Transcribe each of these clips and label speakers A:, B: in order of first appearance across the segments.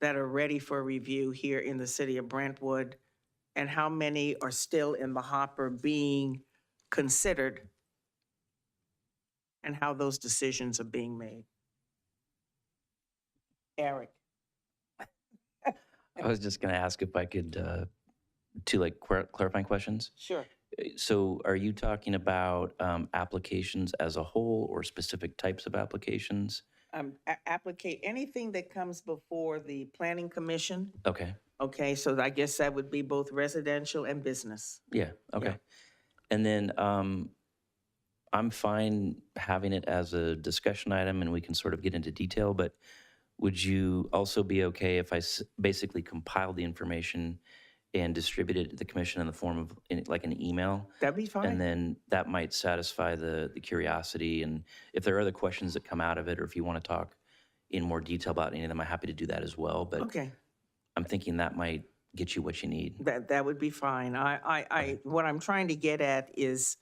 A: that are ready for review here in the city of Brentwood? And how many are still in the hopper being considered? And how those decisions are being made? Eric?
B: I was just going to ask if I could, uh, two like clar- clarifying questions.
A: Sure.
B: Uh, So are you talking about um, applications as a whole or specific types of applications?
A: Um, a- applicate, anything that comes before the planning commission?
B: Okay,
A: Okay, so I guess that would be both residential and business.
B: yeah, okay. And then um, I'm fine having it as a discussion item and we can sort of get into detail, but would you also be okay if I s- basically compiled the information and distributed it to the commission in the form of in- like an email?
A: That'd be fine.
B: And then that might satisfy the, the curiosity. And if there are other questions that come out of it, or if you want to talk in more detail about any of them, I'm happy to do that as well. But
A: Okay,
B: I'm thinking that might get you what you need.
A: that, that would be fine. I, I, I, what I'm trying to get at is,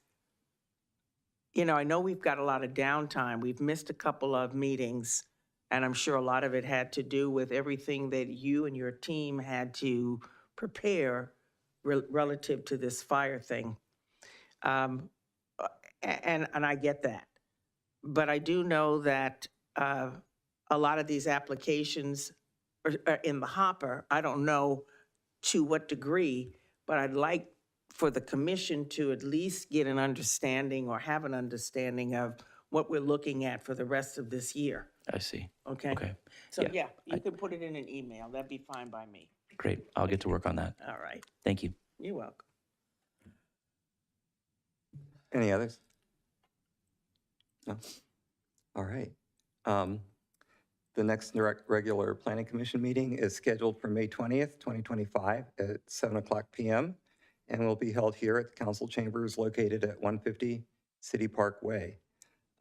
A: you know, I know we've got a lot of downtime. We've missed a couple of meetings. And I'm sure a lot of it had to do with everything that you and your team had to prepare rel- relative to this fire thing. Um, uh, a- And, and I get that. But I do know that uh, a lot of these applications are are in the hopper. I don't know to what degree, but I'd like for the commission to at least get an understanding or have an understanding of what we're looking at for the rest of this year,
B: I see.
A: okay?
B: Okay,
A: So,
B: yeah,
A: yeah, you could put it in an email, that'd be fine by me.
B: great. I'll get to work on that.
A: All right,
B: Thank you.
A: you're welcome.
C: Any others? No? All right. Um, The next direct- regular planning commission meeting is scheduled for May 20th, 2025 at 7 o'clock PM and will be held here at the council chambers located at 150 City Park Way.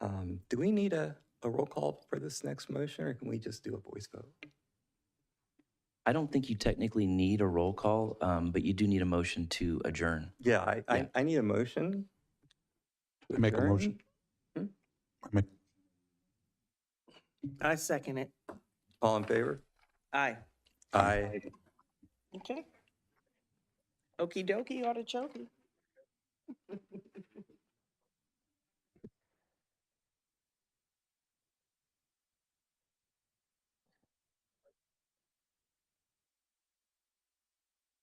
C: Um, Do we need a, a roll call for this next motion or can we just do a voice vote?
B: I don't think you technically need a roll call, um, but you do need a motion to adjourn.
C: Yeah, I,
B: Yeah.
C: I, I need a motion. to
D: I make a
C: adjourn.
D: motion.
C: Hmm?
D: I make,
A: I second it,
C: All in favor?
A: aye.
C: Aye.
A: Okay. Okey dokey, artichoke.